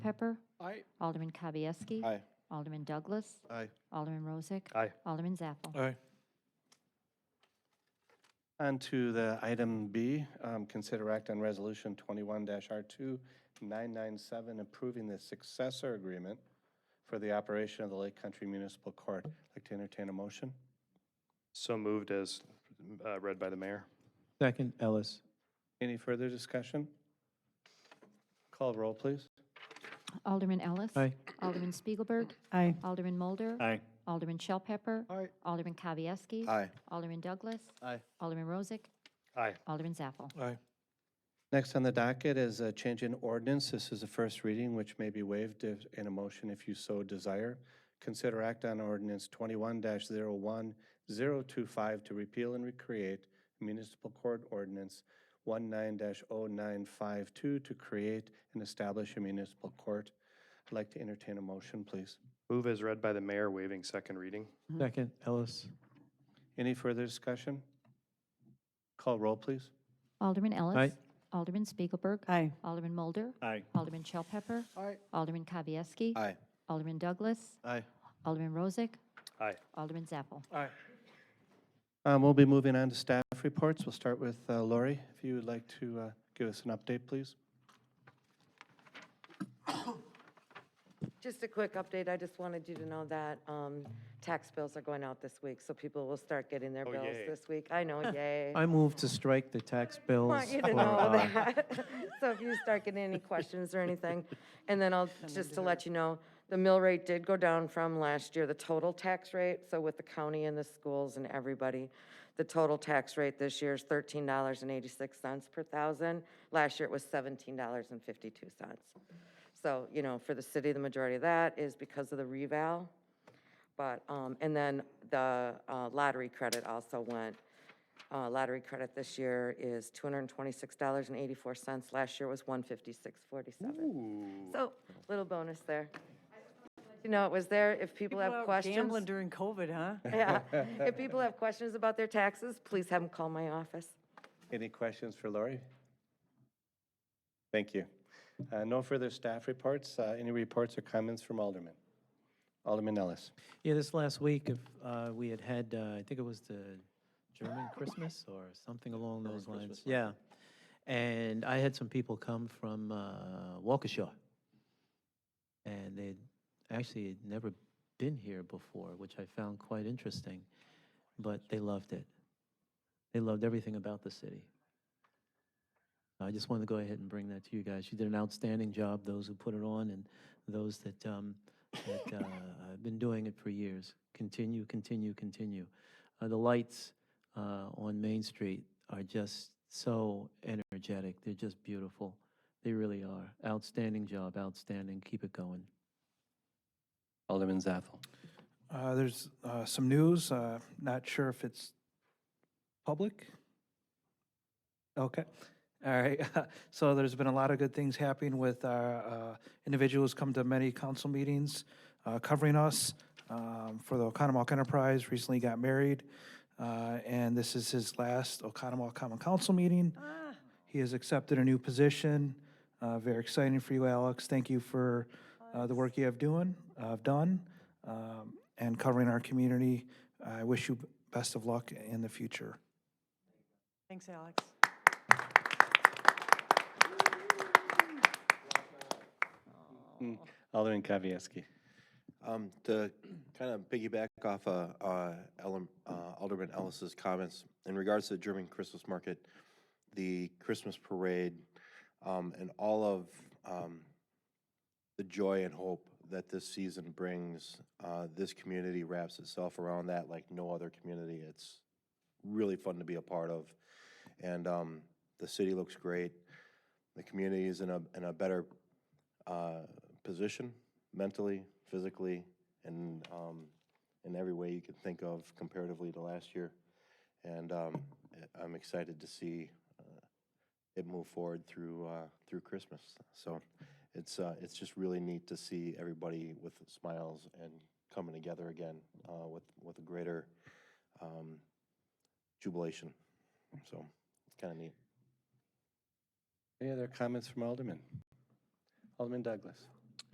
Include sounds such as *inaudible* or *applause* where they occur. Pepper. Aye. Alderman Kavieski. Aye. Alderman Douglas. Aye. Alderman Rozak. Aye. Alderman Zappel. Aye. On to the item B, um, consider act on resolution twenty-one R two nine nine seven, approving the successor agreement for the operation of the Lake Country Municipal Court. Like to entertain a motion? So moved as uh, read by the mayor. Second, Ellis. Any further discussion? Call roll, please. Alderman Ellis. Aye. Alderman Spiegelberg. Aye. Alderman Mulder. Aye. Alderman Shell Pepper. Aye. Alderman Kavieski. Aye. Alderman Douglas. Aye. Alderman Rozak. Aye. Alderman Zappel. Aye. Next on the docket is a change in ordinance. This is the first reading, which may be waived if- in a motion if you so desire. Consider act on ordinance twenty-one 1025 to repeal and recreate municipal court ordinance one-nine 952 to create and establish a municipal court. I'd like to entertain a motion, please. Move as read by the mayor, waiving second reading. Second, Ellis. Any further discussion? Call roll, please. Alderman Ellis. Aye. Alderman Spiegelberg. Aye. Alderman Mulder. Aye. Alderman Shell Pepper. Aye. Alderman Kavieski. Aye. Alderman Douglas. Aye. Alderman Rozak. Aye. Alderman Zappel. Aye. Um, We'll be moving on to staff reports. We'll start with uh, Lori, if you would like to uh, give us an update, please. Just a quick update, I just wanted you to know that um, tax bills are going out this week, so people will start getting their bills yay. this week. I know, *laughs* yay. I move to strike the tax bills. Want you to for, know uh, that. *laughs* So if you start getting any questions or anything, and then I'll, just to let you know, the mill rate did go down from last year, the total tax rate, so with the county and the schools and everybody, the total tax rate this year is thirteen dollars and eighty-six cents per thousand. Last year it was seventeen dollars and fifty-two cents. So, you know, for the city, the majority of that is because of the reval. But, um, and then the uh, lottery credit also went. Uh, lottery credit this year is two hundred and twenty-six dollars and eighty-four cents. Last year was one fifty-six forty-seven. So, little bonus there. You know, it was there. If people have questions. Gambling during COVID, huh? *laughs* Yeah. If people have questions about their taxes, please have them call my office. Any questions for Lori? Thank you. Uh, No further staff reports. Uh, Any reports or comments from Alderman? Alderman Ellis. Yeah, this last week, if, uh, we had had, uh, I think it was the German Christmas or something along those lines. Yeah. And I had some people come from, uh, Waukesha. And they'd actually had never been here before, which I found quite interesting, but they loved it. They loved everything about the city. I just wanted to go ahead and bring that to you guys. You did an outstanding job, those who put it on and those that, um, that uh, I've been doing it for years. Continue, continue, continue. Uh, the lights uh, on Main Street are just so energetic. They're just beautiful. They really are. Outstanding job, outstanding. Keep it going. Alderman Zaffel. Uh, There's uh, some news, uh, not sure if it's public. Okay, all right. *laughs* So there's been a lot of good things happening with our uh, individuals come to many council meetings uh, covering us um, for the Oconomowoc Enterprise, recently got married. uh, And this is his last Oconomowoc Common Council meeting. He has accepted a new position. Uh, Very exciting for you, Alex. Thank you for uh, the work you have doing, uh, done, um, and covering our community. I wish you best of luck in the future. Thanks, Alex. Alderman Kavieski. Um, To kind of piggyback off uh, uh, Ellen- uh, Alderman Ellis's comments, in regards to the German Christmas market, the Christmas parade, um, and all of um, the joy and hope that this season brings, uh, this community wraps itself around that like no other community. It's really fun to be a part of. And um, the city looks great. The community is in a, in a better uh, position mentally, physically, and um, in every way you can think of comparatively to last year. And um, I- I'm excited to see uh, it move forward through uh, through Christmas. So it's uh, it's just really neat to see everybody with smiles and coming together again uh, with with a greater um, jubilation. So kind of neat. Any other comments from Alderman? Alderman Douglas.